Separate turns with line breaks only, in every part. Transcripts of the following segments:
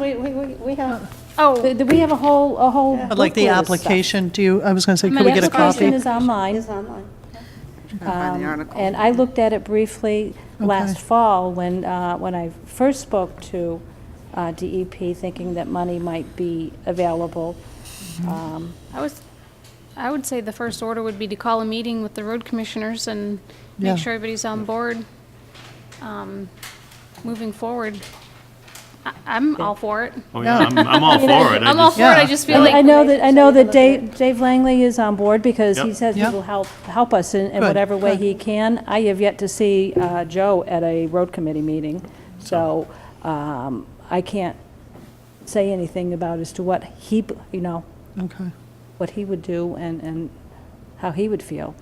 we, we, we we have, oh, do we have a whole, a whole?
I'd like the
booklet of stuff?
application, do you, I was going to say, could we get a
Application
copy?
is online.
It's online.
um, And I looked at it briefly last
Okay.
fall when, uh, when I first spoke to uh, DEP, thinking that money might be available. Um,
I was, I would say the first order would be to call a meeting with the road commissioners and
Yeah.
make sure everybody's on board, um, moving forward. I, I'm all for it.
Oh, yeah, I'm, I'm all for it. I
I'm all
just-
for it, I
Yeah.
just
I
feel
I
like,
know that, I know that Dave, Dave Langley is on board because he
Yep.
says he
Yeah.
will help, help us in, in
Good,
whatever way
good.
he can. I have yet to see uh, Joe at a road committee meeting, so um, I can't say anything about as to what he, b- you know,
Okay.
what he would do and, and how he would feel.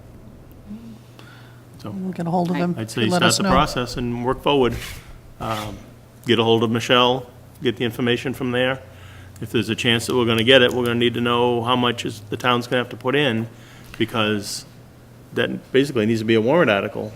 so
We'll get a hold of him.
I'd say
and let
start
us
the
know.
process and work forward. Um, Get a hold of Michelle, get the information from there. If there's a chance that we're gonna get it, we're gonna need to know how much is, the town's gonna have to put in, because that basically needs to be a warrant article.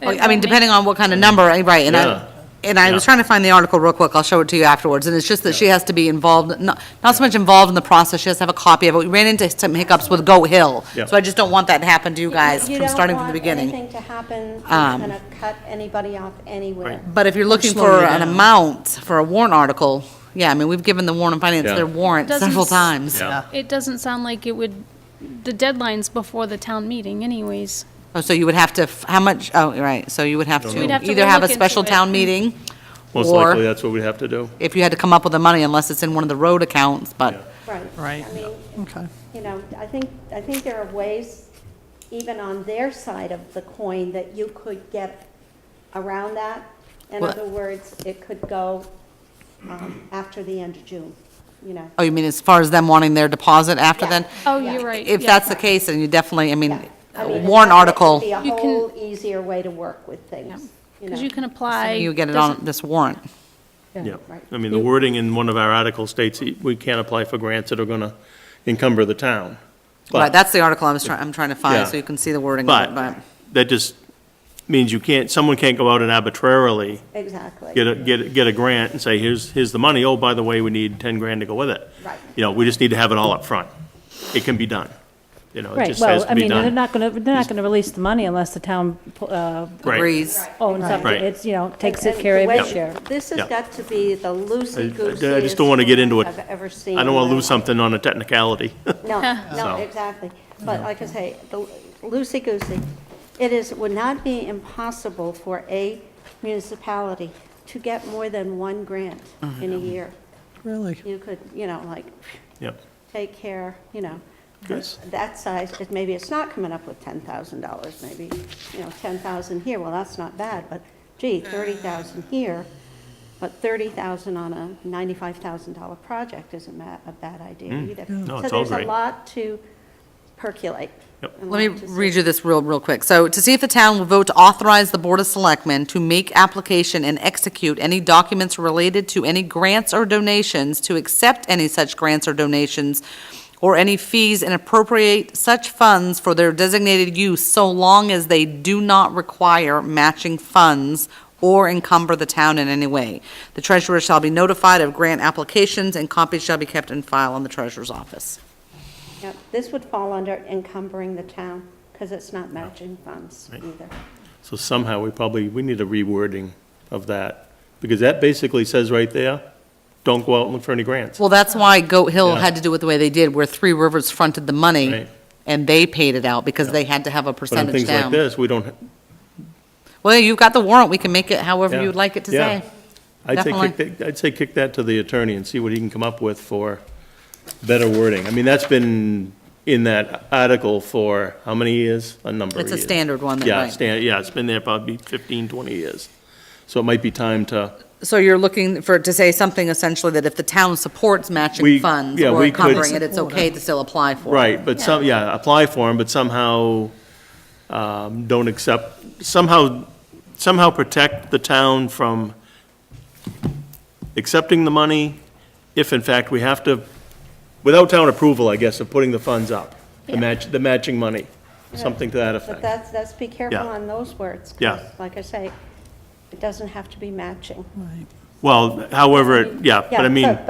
It
I
won't
mean,
make-
depending on what kind of number, eh, right, and
Yeah.
I, and I
Yeah.
was trying to find the article real quick, I'll show it to you afterwards, and it's just that she has to be involved, not, not so much involved in the process, she has to have a copy of it, we ran into some hiccups with Goat Hill,
Yeah.
so I just don't want that to happen to you guys,
You
from
don't
starting from the
want
beginning.
Anything to happen that's
Um,
going to cut anybody off anywhere.
But if you're looking
slowing
for
it
an
down.
amount, for a warrant article, yeah, I mean, we've given the warrant and finance
Yeah.
their warrant
Doesn't
several
s-
times.
Yeah.
It doesn't sound like it would, the deadline's before the town meeting anyways.
Oh, so you would have to, f- how much, oh, right, so you would have
We'd have
to
to
either have a
look into
special
it.
town meeting,
Most
Or-
likely, that's what we'd have to do.
if you had to come up with the money, unless it's in one of the road accounts,
Yeah.
but.
Right.
Right.
I mean,
Okay.
you know, I think, I think there are ways, even on their side of the coin, that you could get around that. In
Well-
other words, it could go um, after the end of June, you know.
Oh, you mean as far as them wanting their deposit after
Yeah.
then?
Oh,
Yeah.
you're right.
If
yeah.
that's the case, then you definitely, I mean,
I
a
mean,
warrant
that would
article,
Be a
You can-
whole easier way to work with things, you know.
Because you can apply.
you get it
doesn't-
on this warrant.
Yeah,
Right.
I mean, the wording in one of our articles states that we can't apply for grants that are gonna encumber the town. But-
Right, that's the article I was trying, I'm trying to find,
Yeah.
so you can see the wording of it, but.
But that just means you can't, someone can't go out and arbitrarily
Exactly.
get a, get, a- get a grant and say, here's, here's the money, oh, by the way, we need 10 grand to go with it.
Right.
You know, we just need to have it all up front. It can be done. You know, it
Right,
just has
well, I
to be
mean, they're
done.
not going to, they're not going to release the money unless the town uh,
Right.
Agrees.
owns up,
Right.
to it's, you know, takes
And-
it
and
care of
the way-
its share.
This has
Yeah.
got to be the loosey-goosey.
I- I just don't wanna get into it.
I've ever seen.
I don't want to lose
something.
something on a technicality.
No, no,
So-
exactly. But like I say, the loosey-goosey, it is, would not be impossible for a municipality to get more than one grant
Mm-hmm.
in a year.
Really?
You could, you know, like,
Yep.
take care, you know,
Yes.
that size, it- maybe it's not coming up with $10,000, maybe, you know, 10,000 here, well, that's not bad, but gee, 30,000 here, but 30,000 on a $95,000 project isn't ma- a bad idea either.
Mm. No, it's all
So there's
great.
a lot to percolate.
Yep.
and
Let
lot
me
to see.
read you this real, real quick. So to see if the town will vote to authorize the Board of Selectmen to make application and execute any documents related to any grants or donations, to accept any such grants or donations, or any fees and appropriate such funds for their designated use so long as they do not require matching funds or encumber the town in any way. The treasurer shall be notified of grant applications and copies shall be kept in file in the treasurer's office.
Yep, This would fall under encumbering the town, because it's not matching funds
Right.
either.
So somehow, we probably, we need a rewording of that, because that basically says right there, don't go out and look for any grants.
Well, that's why Goat Hill
Yeah.
had to do it the way they did, where Three Rivers fronted the money,
Right.
and they paid it out, because they had to have a
But on
percentage
things like
down.
this, we don't,
Well, you've got the warrant, we can make it however
Yeah.
you'd like it to
Yeah.
say.
I'd say, kick
Definitely.
that, I'd say kick that to the attorney and see what he can come up with for better wording. I mean, that's been in that article for how many years? A number of
It's
years.
a standard one, that-
Yeah,
right.
stand, yeah, it's been there probably 15, 20 years. So it might be time to,
So you're looking for, it to say something essentially that if the town supports
We-
matching funds
yeah,
or
we could-
covering it, it's okay to still apply for it.
right, but some, yeah, apply for them, but somehow, um, don't accept, somehow, somehow protect the town from accepting the money if in fact we have to, without town approval, I guess, of putting the funds up, the match, the matching money, something to that
But
effect.
that's, that's, be careful
Yeah.
on those words. 'cause
Yeah.
Like I say, it doesn't have to be matching.
Right.
Well, however, it- yeah, but I
Yeah,
mean.
but-